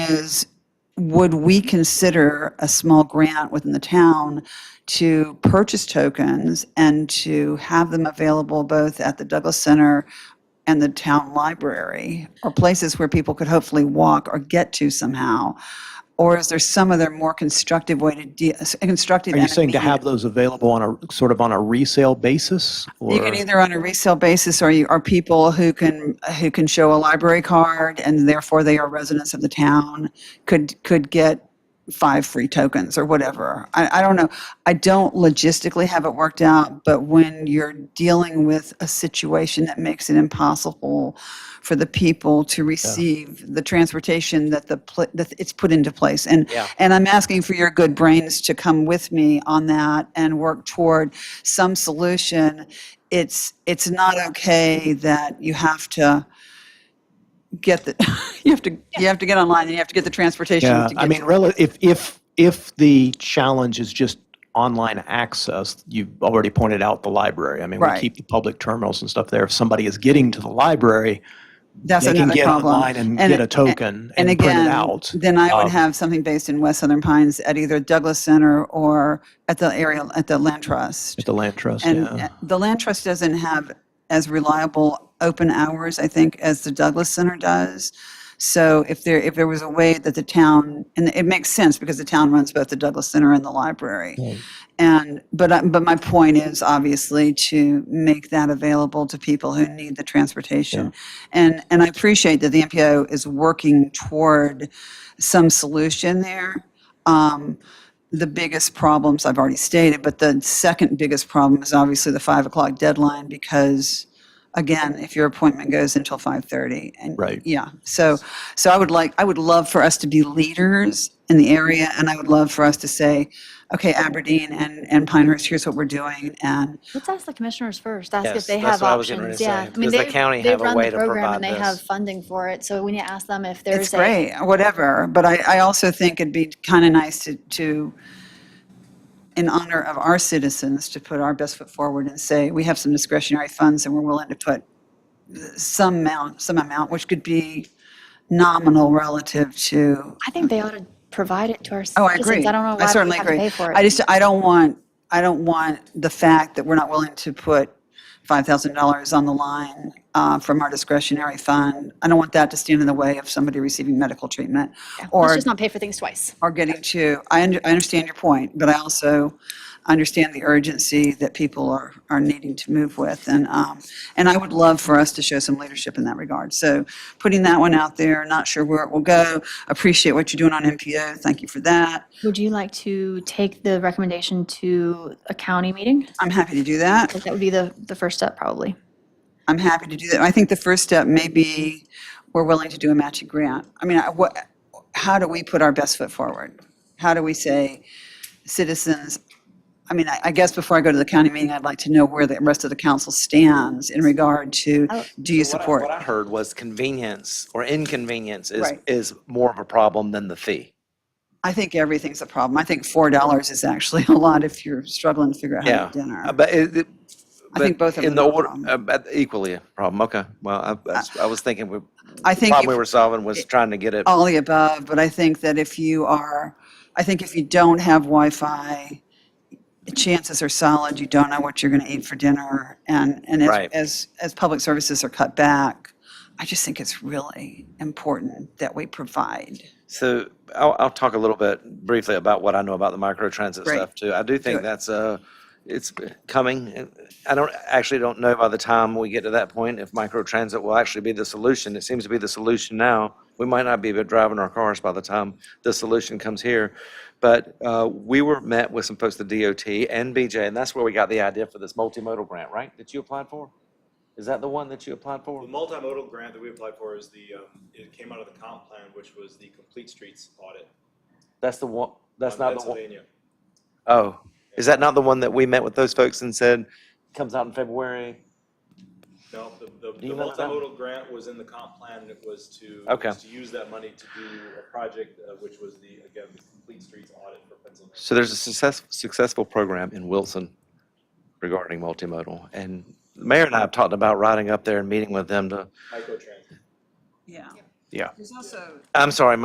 is, would we consider a small grant within the town to purchase tokens and to have them available both at the Douglas Center and the town library, or places where people could hopefully walk or get to somehow? Or is there some other more constructive way to, de- constructive? Are you and saying to have immediate- those available on a, sort of on a resale basis? You or can either on a resale basis, or you are people who can, who can show a library card, and therefore they are residents of the town, could, could get five free tokens or whatever. I, I don't know. I don't logistically have it worked out, but when you're dealing with a situation that makes it impossible for the people to receive the transportation that the, pl- that it's put into place. And, Yeah. and I'm asking for your good brains to come with me on that and work toward some solution. It's, it's not okay that you have to get the, you have to, you have to get online and you have to get the transportation to Yeah, get I mean, to- rela- if, if, if the challenge is just online access, you've already pointed out the library. I mean, we Right. keep the public terminals and stuff there. If somebody is getting to the library, That's they can another get problem. online and And- get a token And and print it again, out. then I would Um, have something based in West Southern Pines at either Douglas Center or at the area, at the Land Trust. At the land trust, And yeah. uh, the Land Trust doesn't have as reliable open hours, I think, as the Douglas Center does. So if there, if there was a way that the town, and it makes sense because the town runs both the Douglas Center and the library. And, but, I- but my point is obviously to make that available to people who need the transportation. And, and I appreciate that the MPO is working toward some solution there. Um, The biggest problems I've already stated, but the second biggest problem is obviously the 5 o'clock deadline because, again, if your appointment goes until 5:30. and Right. Yeah, so, so I would like, I would love for us to be leaders in the area and I would love for us to say, okay, Aberdeen and, and Pinehurst, here's what we're doing. And Let's ask the commissioners first, ask Yes, if they that's have what I was getting ready options, to yeah. say. I mean, Does the they've- county they've have a run the way to program provide And they have this? funding for it, so we need to ask them if it's there's a, great, whatever, but I, I also think it'd be kind of nice to, to, in honor of our citizens, to put our best foot forward and say, we have some discretionary funds and we're willing to put some amount, some amount, which could be nominal relative to I think they ought to provide it to our Oh, I citizens. agree. I don't know I why we certainly have to agree. pay for it. I just, I don't want, I don't want the fact that we're not willing to put $5,000 on the line uh, from our discretionary fund. I don't want that to stand in the way of somebody receiving medical treatment Let's or, just not pay for things twice. or getting to, I under- I understand your point, but I also understand the urgency that people are, are needing to move with. And, um, and I would love for us to show some leadership in that regard. So putting that one out there, not sure where it will go. Appreciate what you're doing on MPO. Thank you for that. Would you like to take the recommendation to a county meeting? I'm happy to do that. That would be the, the first step, probably. I'm happy to do that. I think the first step may be, we're willing to do a matching grant. I mean, I- what, how do we put our best foot forward? How do we say, citizens, I mean, I I guess before I go to the county meeting, I'd like to know where the rest of the council stands in regard to, do you Oh, So what I- support? What I heard was convenience or inconvenience is, Right. is more of a problem than the fee. I think everything's a problem. I think $4 is actually a lot if you're struggling to figure out how Yeah. to get dinner. Uh, But it, it- I think but both of them in the are a order- problem. Uh, uh, but Equally a problem, okay. Well, I- that's- I was thinking, we- I the think problem we if- were solving was trying to get it, all the above, but I think that if you are, I think if you don't have Wi-Fi, chances are solid you don't know what you're going to eat for dinner. And, and as, Right. as, as public services are cut back, I just think it's really important that we provide. So I'll, I'll talk a little bit briefly about what I know about the microtransit Great. stuff too. I do it. think that's uh it's coming. I don't, actually don't know by the time we get to that point if microtransit will actually be the solution. It seems to be the solution now. We might not be driving our cars by the time the solution comes here. But uh, we were met with some folks at DOT and BJ, and that's where we got the idea for this multimodal grant, right? That you applied for? Is that the one that you applied for? The multimodal grant that we applied for is the, um, it came out of the comp plan, which was the complete streets audit. That's the one, that's on not the one. Pennsylvania. Oh, is that not the one that we met with those folks and said, comes out in February? No, the, the- you the remember that? multimodal grant was in the comp plan, it was to. Okay. was To use that money to do a project, uh, which was the, again, the complete streets audit for Pennsylvania. So there's a success, successful program in Wilson regarding multimodal. And the mayor and I have talked about riding up there and meeting with them to, Microtransit. Yeah. Yeah. There's also, I'm sorry,